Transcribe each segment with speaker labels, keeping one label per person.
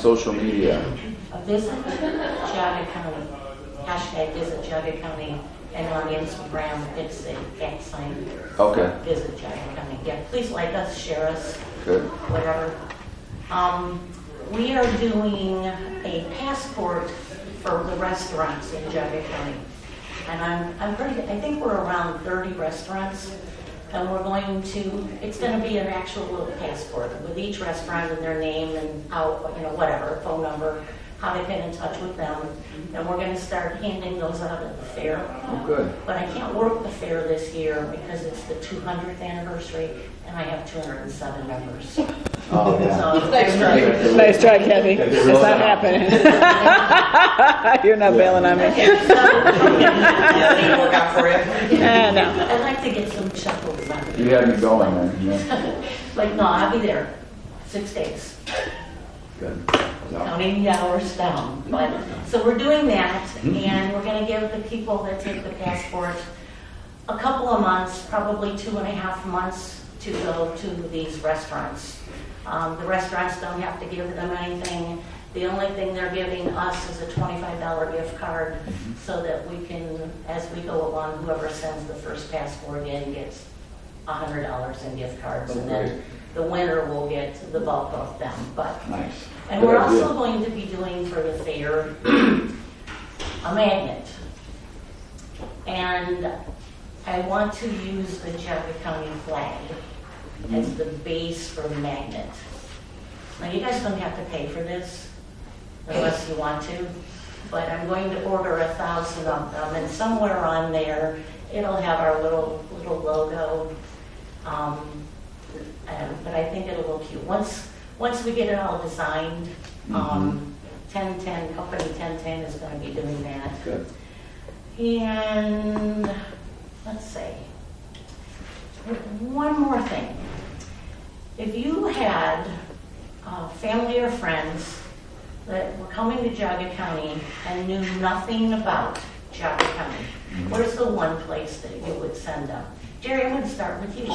Speaker 1: Social media.
Speaker 2: Uh, Visit Geauga County, hashtag Visit Geauga County, and on Instagram, it's the at sign.
Speaker 1: Okay.
Speaker 2: Visit Geauga County, yeah, please like us, share us,
Speaker 1: Good.
Speaker 2: whatever. Um, We are doing a passport for the restaurants in Geauga County. And I'm, I'm pretty, I think we're around 30 restaurants, and we're going to, it's going to be an actual little passport with each restaurant and their name and how, you know, whatever, phone number, how they've been in touch with them. And we're going to start handing those out at the fair.
Speaker 1: Oh, good.
Speaker 2: But I can't work the fair this year because it's the 200th anniversary, and I have 207 members.
Speaker 1: Oh, yeah.
Speaker 2: So it's very-
Speaker 3: Nice try, Kathy. It's not happening. You're not bailing on me.
Speaker 2: Okay, so-
Speaker 4: Work out for you.
Speaker 3: Ah, no.
Speaker 2: I'd like to get some chuckles out of
Speaker 1: You
Speaker 2: it.
Speaker 1: had me going then. Yeah.
Speaker 2: Like, no, I'll be there six days,
Speaker 1: Good. Yeah.
Speaker 2: counting the hours down. But, so we're doing that, and we're gonna give the people that take the passport a couple of months, probably two and a half months, to go to these restaurants. Um, The restaurants don't have to give them anything. The only thing they're giving us is a $25 gift card so that we can, as we go along, whoever sends the first passport in gets $100 in gift cards. And then the winner will get the bulk of them. But
Speaker 1: Nice.
Speaker 2: and
Speaker 1: Good
Speaker 2: we're
Speaker 1: idea.
Speaker 2: also going to be doing for the fair a magnet. And I want to use the Chappaqua County flag as the base for the magnet. Now, you guys don't have to pay for this unless you want to, but I'm going to order a thousand of them, and somewhere on there, it'll have our little, little logo. Um, um, but I think it'll look cute. Once, once we get it all designed, um, 1010, company 1010 is gonna be doing that.
Speaker 1: Good.
Speaker 2: And, let's see. One more thing. If you had uh, family or friends that were coming to Jaga County and knew nothing about Jaga County, where's the one place that you would send them? Jerry, I'm gonna start with you.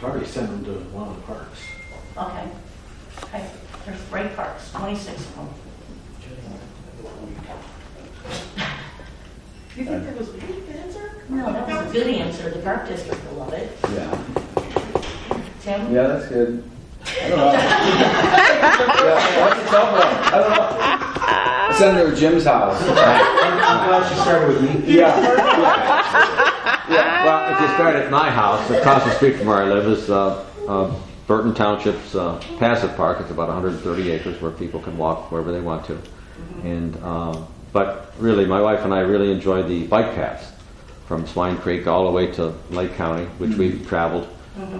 Speaker 5: Probably send them to one of the parks.
Speaker 2: Okay. Okay, there's great parks, 26 of them.
Speaker 4: You think that was a good answer?
Speaker 2: No, that was a good answer, the park district will love it.
Speaker 1: Yeah.
Speaker 2: Tim?
Speaker 1: Yeah, that's good. I don't know. yeah, that's a tough one. I don't know. Send her to Jim's house.
Speaker 5: I'm glad she started with me.
Speaker 1: yeah.
Speaker 6: Well, if you start at my house, across the street from where I live is uh, uh, Burton Township's uh, passive park. It's about 130 acres where people can walk wherever they want to. And um, but really, my wife and I really enjoy the bike paths from Swine Creek all the way to Lake County, which we've traveled.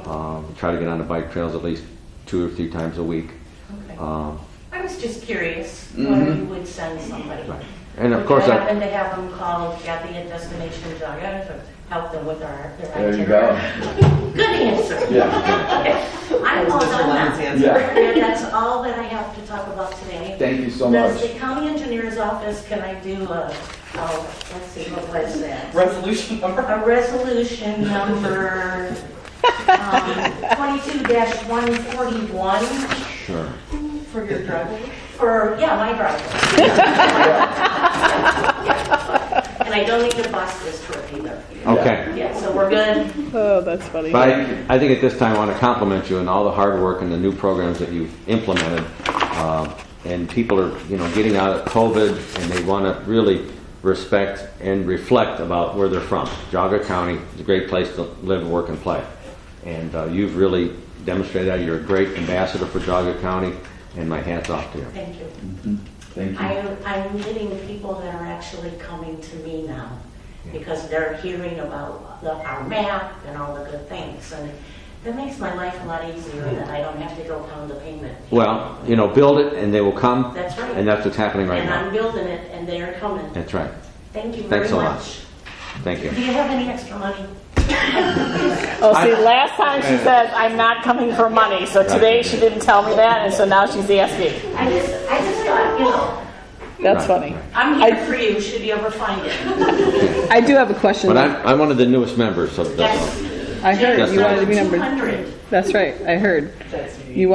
Speaker 6: Um, we try to get on the bike trails at least two or three times a week.
Speaker 2: Okay.
Speaker 6: Um,
Speaker 2: I was just curious
Speaker 1: Mm-hmm.
Speaker 2: whether you would send somebody.
Speaker 6: Right. And of
Speaker 2: Would
Speaker 6: course
Speaker 2: you
Speaker 6: I-
Speaker 2: happen to have them call Kathy at Destination Jaga to help them with our, their
Speaker 1: There you
Speaker 2: itinerary?
Speaker 1: go.
Speaker 2: Good answer.
Speaker 1: Yeah.
Speaker 2: Okay. I'm all
Speaker 4: Mr.
Speaker 2: done
Speaker 4: Lennon's
Speaker 2: now.
Speaker 4: answer.
Speaker 1: Yeah.
Speaker 2: And that's all that I have to talk about today.
Speaker 1: Thank you so
Speaker 2: Does
Speaker 1: much.
Speaker 2: the county engineer's office, can I do a, oh, let's see, what was that?
Speaker 4: Resolution number?
Speaker 2: A resolution number um, twenty-two one forty-one
Speaker 6: sure.
Speaker 4: For your driveway?
Speaker 2: for, yeah, my driveway. And I don't need to bus this trip either.
Speaker 6: Okay.
Speaker 2: Yeah, so we're good.
Speaker 3: Oh, that's funny.
Speaker 6: But I, I think at this time, I want to compliment you on all the hard work and the new programs that you've implemented. Um, and people are, you know, getting out of COVID, and they want to really respect and reflect about where they're from. Jaga County is a great place to live, work, and play. And uh, you've really demonstrated that. You're a great ambassador for Jaga County, and my hat's off to you.
Speaker 2: Thank you.
Speaker 1: Thank you.
Speaker 2: I, I'm getting people that are actually coming to me now because they're hearing about the, our map and all the good things. And that makes my life a lot easier that I don't have to go pound the pavement.
Speaker 6: Well, you know, build it, and they will come.
Speaker 2: That's right.
Speaker 6: And that's what's happening right
Speaker 2: And I'm
Speaker 6: now.
Speaker 2: building it and they're coming.
Speaker 6: That's right.
Speaker 2: Thank you very
Speaker 6: Thanks a lot.
Speaker 2: much.
Speaker 6: Thank you.
Speaker 2: Do you have any extra money?
Speaker 3: Oh, see, last time she says, I'm not coming for money, so today she didn't tell me that, and so now she's asking.
Speaker 2: I just, I just thought, you know,
Speaker 3: That's
Speaker 6: Right,
Speaker 3: funny.
Speaker 6: right.
Speaker 2: I'm
Speaker 3: I-
Speaker 2: here for you should you ever find it.
Speaker 3: I do have a question.
Speaker 6: But I'm, I'm one of the newest members of the.
Speaker 2: Yes, I heard
Speaker 7: Yes,
Speaker 2: you
Speaker 7: there
Speaker 2: wanted to be
Speaker 8: Two
Speaker 2: number.
Speaker 8: hundred.
Speaker 2: That's right. I heard
Speaker 3: That's me.
Speaker 2: you